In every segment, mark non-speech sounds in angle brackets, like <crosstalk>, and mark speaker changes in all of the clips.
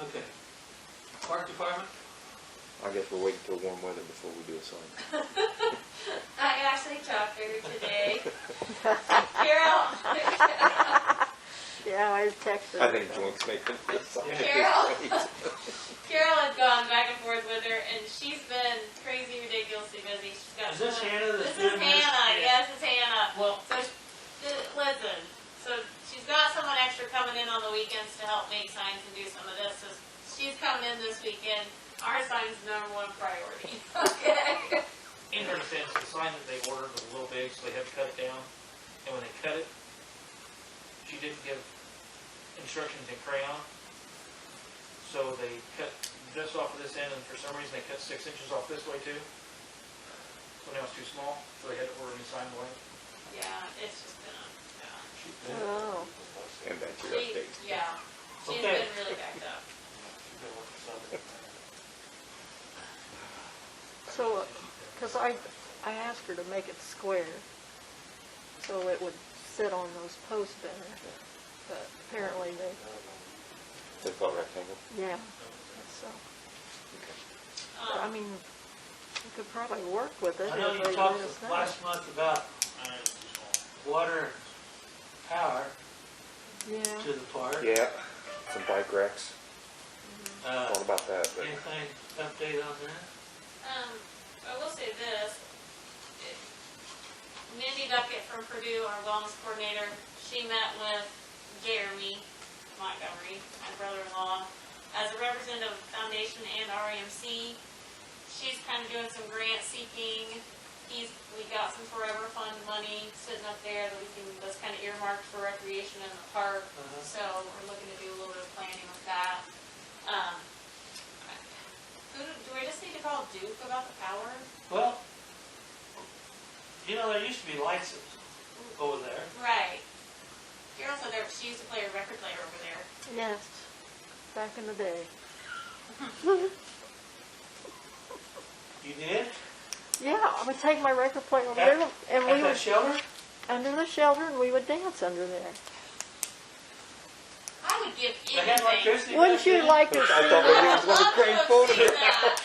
Speaker 1: Okay. Park Department?
Speaker 2: I guess we'll wait until warm weather before we do a sign.
Speaker 3: I actually talked to her today. Carol, <laughs>
Speaker 4: Yeah, I was texting.
Speaker 2: I <laughs> think Joints make them.
Speaker 3: Carol. Carol had gone back and forth with her, and she's been crazy, ridiculously busy. She's
Speaker 1: Is
Speaker 3: got.
Speaker 1: this Hannah that's
Speaker 3: This is
Speaker 1: doing this?
Speaker 3: Hannah.
Speaker 1: Yeah.
Speaker 3: Yes, it's Hannah.
Speaker 1: Well,
Speaker 3: So, sh- th- listen, so she's got someone extra coming in on the weekends to help make signs and do some of this, so she's coming in this weekend. Our sign's number one priority, <laughs> okay?
Speaker 1: in her sense, the sign that they ordered was a little big, so they had to cut it down. And when they cut it, she didn't give instructions in crayon. So they cut this off of this end, and for some reason, they cut six inches off this way too. So now it's too small, so they had to order a new sign away.
Speaker 3: Yeah, it's just been, a- yeah. Uh-huh.
Speaker 4: Oh,
Speaker 2: <laughs> And that's your
Speaker 3: She,
Speaker 2: update.
Speaker 3: yeah, she's
Speaker 1: Okay.
Speaker 3: been really backed up.
Speaker 4: so, because I, I asked her to make it square, so it would sit on those posts better, but apparently they,
Speaker 2: They call rectangle?
Speaker 4: yeah, so, but I
Speaker 3: Um,
Speaker 4: mean, we could probably work with it.
Speaker 5: I know
Speaker 4: if
Speaker 5: you
Speaker 4: they
Speaker 5: talked
Speaker 4: let us know.
Speaker 5: last month about water and power
Speaker 4: Yeah,
Speaker 5: to the park.
Speaker 2: Yeah, some bike racks,
Speaker 5: Uh,
Speaker 2: all about that, but
Speaker 5: anything update on that?
Speaker 3: Um, I will say this, Mindy Duckett from Purdue, our wellness coordinator, she met with Jeremy Montgomery, my brother-in-law, as a representative of the foundation and REMC. She's kind of doing some grant seeking. He's, we got some forever fund money sitting up there that we can, that's kind of earmarked for recreation in the park.
Speaker 5: Uh-huh.
Speaker 3: So we're looking to do a little bit of planning with that. Um, who, do do we just need to call Duke about the power?
Speaker 5: Well, you know, there used to be lights over there.
Speaker 3: Right. You're also there, she used to play a record player over there.
Speaker 4: yes, back in the day.
Speaker 5: You did?
Speaker 4: Yeah, I would take my record player over
Speaker 5: At-
Speaker 4: there, and we
Speaker 5: At
Speaker 4: would,
Speaker 5: that shelter?
Speaker 4: under the shelter, and we would dance under there.
Speaker 3: I would give
Speaker 5: They had
Speaker 3: anything.
Speaker 5: electricity back
Speaker 4: Wouldn't you
Speaker 5: then?
Speaker 4: like to
Speaker 2: I
Speaker 4: see,
Speaker 2: thought
Speaker 3: I
Speaker 4: ha
Speaker 2: maybe it was
Speaker 3: would
Speaker 2: one of the great
Speaker 3: love to
Speaker 2: photos.
Speaker 3: have seen that.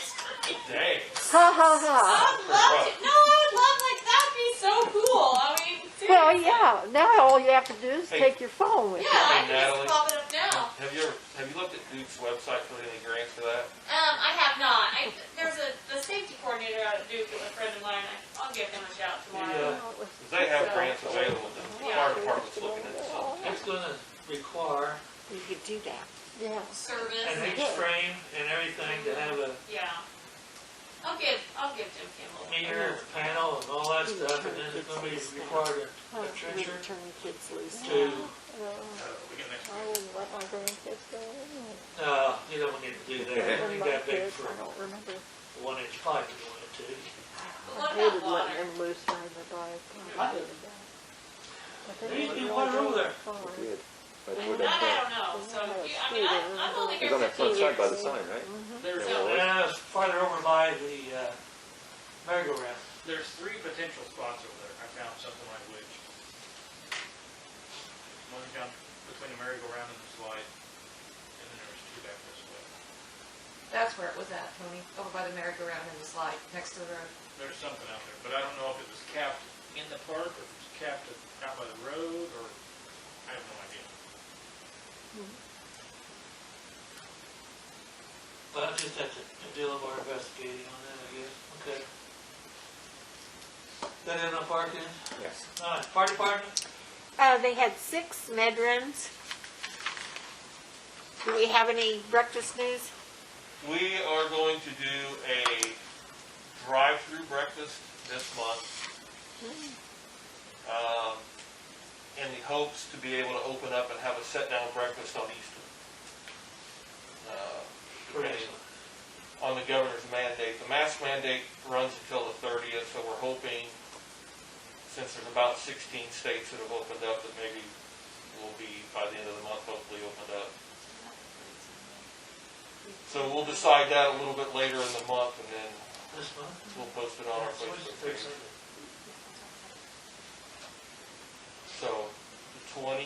Speaker 5: Dang.
Speaker 4: ha
Speaker 3: I
Speaker 4: ha.
Speaker 3: would love to, no, I would love, like, that'd be so cool, I mean, seriously.
Speaker 4: Well, yeah, now all you have to do is
Speaker 6: Hey.
Speaker 4: take your phone
Speaker 3: Yeah,
Speaker 4: with you.
Speaker 3: I
Speaker 6: Hey,
Speaker 3: can just
Speaker 6: Natalie.
Speaker 3: pop it up now.
Speaker 6: Have you ever, have you looked at Duke's website for any grants for that?
Speaker 3: Um, I have not, I, there's a, the safety coordinator out at Duke, is a friend of mine, I- I'll give him a shout tomorrow.
Speaker 5: Yeah.
Speaker 4: Oh, it was-
Speaker 6: 'Cause they have grants available, the fire department's looking at some.
Speaker 5: It's gonna require
Speaker 7: You could do that.
Speaker 4: Yeah,
Speaker 3: Service,
Speaker 5: an H frame and everything to have a
Speaker 3: yeah. I'll give, I'll give Jim Kimball.
Speaker 5: mirror panel and all that stuff, and then it's gonna be required a- a
Speaker 7: You
Speaker 5: trencher
Speaker 7: would turn kids loose.
Speaker 5: to
Speaker 4: uh, I wouldn't let my grandkids go in.
Speaker 5: No, uh, you don't need to do that. I
Speaker 4: When
Speaker 5: think
Speaker 4: my
Speaker 5: that big
Speaker 4: kids,
Speaker 5: for
Speaker 4: I don't remember.
Speaker 5: a one inch pipe you wanted to.
Speaker 3: But
Speaker 4: I
Speaker 3: what
Speaker 4: hated
Speaker 3: about water?
Speaker 4: letting them loose during the day. I hated that. But they
Speaker 5: There used to be
Speaker 4: wouldn't
Speaker 5: water
Speaker 4: really
Speaker 5: over there.
Speaker 4: go far.
Speaker 2: we did. But
Speaker 4: Mhm.
Speaker 2: we're
Speaker 3: That
Speaker 2: done
Speaker 3: I
Speaker 2: now.
Speaker 3: don't know, so, you- I mean,
Speaker 4: Yeah,
Speaker 3: I, I'm only
Speaker 2: It's
Speaker 3: here
Speaker 2: on that
Speaker 3: fifteen
Speaker 2: front side by the
Speaker 3: years.
Speaker 2: sign, right?
Speaker 1: there's,
Speaker 2: Yeah, well-
Speaker 5: And it's farther over by the uh, merry-go-round.
Speaker 1: there's three potential spots over there. I found something like which. One down between the merry-go-round and the slide, and then there was two back this way.
Speaker 8: That's where it was at, Tony, over by the merry-go-round and the slide, next to the road.
Speaker 1: There's something out there, but I don't know if it was capped in the park or if it was capped out by the road or, I have no idea.
Speaker 5: Well, I just have to do a little more investigating on that, I guess. Okay. That in the park then?
Speaker 2: Yes.
Speaker 5: All right, fire department?
Speaker 7: Uh, they had six med runs. Do we have any breakfast news?
Speaker 6: We are going to do a drive-through breakfast this month. Um, in the hopes to be able to open up and have a sit-down breakfast on Easter. Uh, Depending on the governor's mandate. The mask mandate runs until the thirtieth, so we're hoping, since there's about sixteen states that have opened up, that maybe we'll be, by the end of the month, hopefully opened up. So we'll decide that a little bit later in the month, and then
Speaker 5: This month?
Speaker 6: we'll post it on our
Speaker 5: What's the
Speaker 6: Facebook
Speaker 5: third
Speaker 6: page.
Speaker 5: Sunday?